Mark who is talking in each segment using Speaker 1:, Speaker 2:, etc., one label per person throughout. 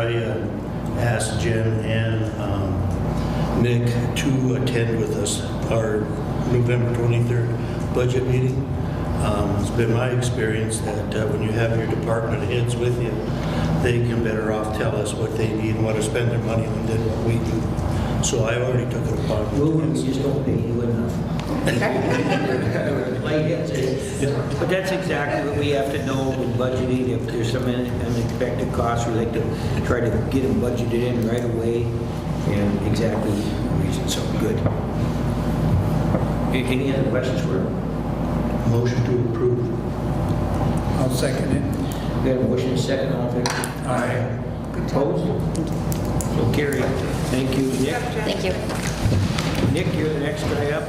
Speaker 1: Australia asked Jen and um, Nick to attend with us our November 23rd budget meeting. Um, It's been my experience that uh, when you have your department heads with you, they can better off tell us what they need and what to spend their money on than what we do. So I already took it upon
Speaker 2: Well,
Speaker 1: myself.
Speaker 2: we just don't pay you enough. Like that's it. But that's exactly what we have to know with budgeting, if there's some un- unexpected costs, we like to try to get them budgeted in right away, and exactly the reason, so, good. A- Any other questions for him?
Speaker 1: Motion to approve.
Speaker 3: I'll second it.
Speaker 2: We have a motion and a second, all in favor?
Speaker 3: Aye.
Speaker 2: Opposed? So carried. Thank you, Nick.
Speaker 4: Thank you.
Speaker 2: Nick, you're the next guy up.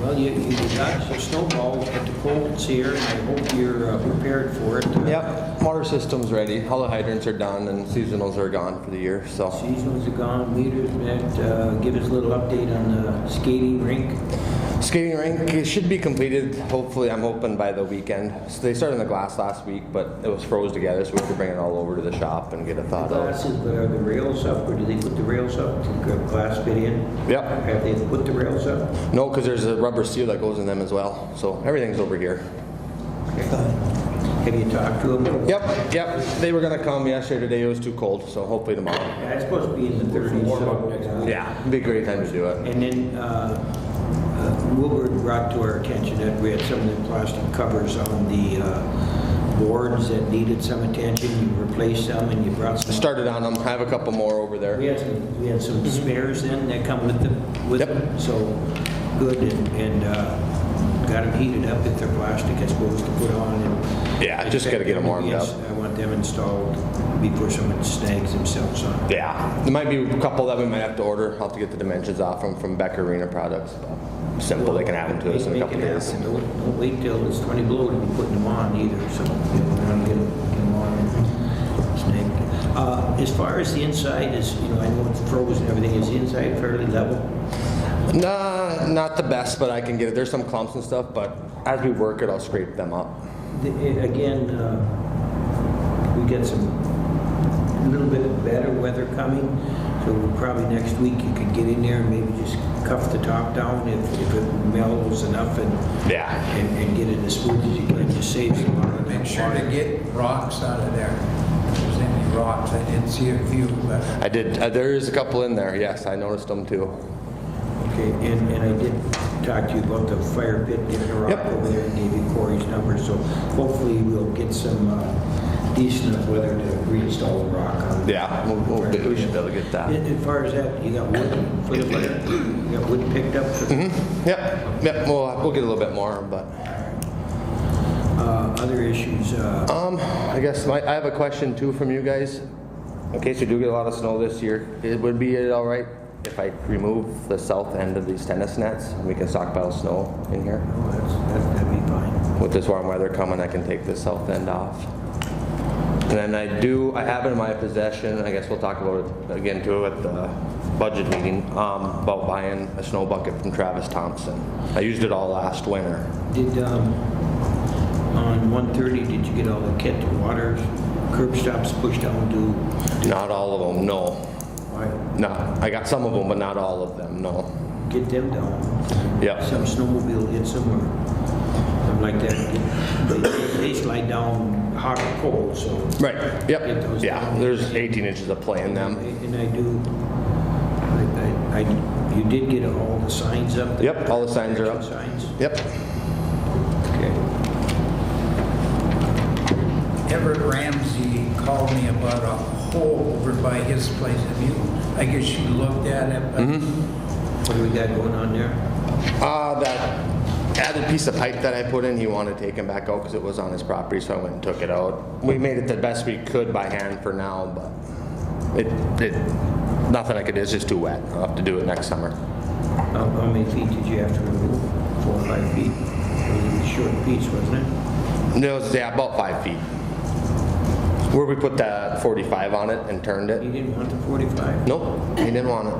Speaker 2: Well, you, you got some snowballs, but the cold's here, and I hope you're uh, prepared for it.
Speaker 5: Yep, water system's ready. All the hydrants are done and seasonals are gone for the year, so.
Speaker 2: Seasons are gone, leaders met, uh, give us a little update on the skating rink.
Speaker 5: Skating rink it should be completed, hopefully, I'm hoping by the weekend. So they started on the glass last week, but it was froze together, so we have to bring it all over to the shop and get it
Speaker 2: The
Speaker 5: thawed out.
Speaker 2: Glasses, but are the rails up, or do they put the rails up to grab glass fit in?
Speaker 5: Yep.
Speaker 2: Have they put the rails up?
Speaker 5: No, because there's a rubber seal that goes in them as well, so everything's over here.
Speaker 2: Have you talked to them?
Speaker 5: Yep, yep, they were gonna come yesterday, today it was too cold, so hopefully tomorrow.
Speaker 2: Yeah, It's supposed to be in the 30s, so. uh,
Speaker 5: Yeah, it'd be a great time to do it.
Speaker 2: And then uh, uh, Wilbur brought to our attention that we had some of the plastic covers on the uh, boards that needed some attention. You replaced them and you brought some.
Speaker 5: Started on them, I have a couple more over there.
Speaker 2: We had some, we had some spares in that come with them, with
Speaker 5: Mm-hmm. Yep.
Speaker 2: them. So good and, and uh, got them heated up if they're plastic, I suppose, to put on. and-
Speaker 5: Yeah, just gotta get 'em warmed up.
Speaker 2: Yes, I want them installed before someone snags themselves on.
Speaker 5: Yeah, there might be a couple that we might have to order. I'll have to get the dimensions off them from Beck Arena Products. Simple, they can add them to us in a
Speaker 2: Make
Speaker 5: couple
Speaker 2: it
Speaker 5: days.
Speaker 2: happen. Don't don't wait till it's 20 below to be putting them on either, so you know, get them, get them on and snag. Uh, As far as the inside is, you know, I know it's frozen, everything is the inside fairly level.
Speaker 5: Nah, not the best, but I can get it. There's some clumps and stuff, but as we work it, I'll scrape them up.
Speaker 2: The- eh, Again, uh, we get some, a little bit better weather coming, so we'll probably next week you could get in there and maybe just cuff the top down if if it mellows enough and
Speaker 5: Yeah.
Speaker 2: and and get it as smooth as you can, just saves a lot of
Speaker 3: Make sure to
Speaker 2: water.
Speaker 3: get rocks out of there. If there's any rocks, I didn't see a few, but
Speaker 5: I did, uh, there is a couple in there. Yes, I noticed them too.
Speaker 2: Okay, and, and I did talk to you about the fire pit in Iraq
Speaker 5: Yep.
Speaker 2: over there, and gave you Corey's number, so hopefully we'll get some uh, decent enough weather to reinstall the rock on.
Speaker 5: Yeah, we'll- we'll do- we should be able to get that.
Speaker 2: And- and As far as that, you got wood, for the fire? you got wood picked up? so-
Speaker 5: Mm-hmm. Yep, yep, we'll, we'll get a little bit more, but.
Speaker 2: Uh, Other issues, uh,
Speaker 5: Um, I guess my, I have a question too from you guys. In case we do get a lot of snow this year, it would be it all right if I remove the south end of these tennis nets and we can stockpile snow in here?
Speaker 2: no, oh, that's, that- that'd be fine.
Speaker 5: With this warm weather coming, I can take the south end off. And then I do, I have it in my possession, I guess we'll talk about it again too at the budget meeting, um, about buying a snow bucket from Travis Thompson. I used it all last winter.
Speaker 2: Did, um, on 130, did you get all the kit, the water, curb stops pushed down to?
Speaker 5: Not all of them, no.
Speaker 2: Why?
Speaker 5: Not, I got some of them, but not all of them, no.
Speaker 2: Get them down.
Speaker 5: Yeah,
Speaker 2: some snowmobile hits them or something like that. They- They slide down hot or cold, so.
Speaker 5: right,
Speaker 2: Get
Speaker 5: yep,
Speaker 2: those
Speaker 5: yeah,
Speaker 2: down.
Speaker 5: there's 18 inches of play in them.
Speaker 2: And I do, I, I- I, you did get all the signs up?
Speaker 5: Yep, all the signs are up.
Speaker 2: Signs,
Speaker 5: Yep,
Speaker 2: okay.
Speaker 3: Everett Ramsey called me about a hole over by his place. Have you, I guess you looked at it, but
Speaker 2: What do we got going on there?
Speaker 5: uh, that added piece of pipe that I put in, he wanted taken back out because it was on his property, so I went and took it out. We made it the best we could by hand for now, but it, it, nothing I could, do. it's just too wet. I'll have to do it next summer.
Speaker 2: How, how many feet did you have to remove? Four or five feet? It was a short piece, wasn't it?
Speaker 5: No, it's, yeah, about five feet. Where we put that 45 on it and turned it.
Speaker 2: You didn't want the 45?
Speaker 5: Nope, he didn't want it.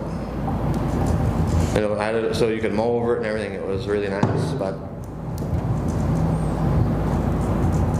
Speaker 5: And it had it- so you could mow over it and everything, it was really nice, but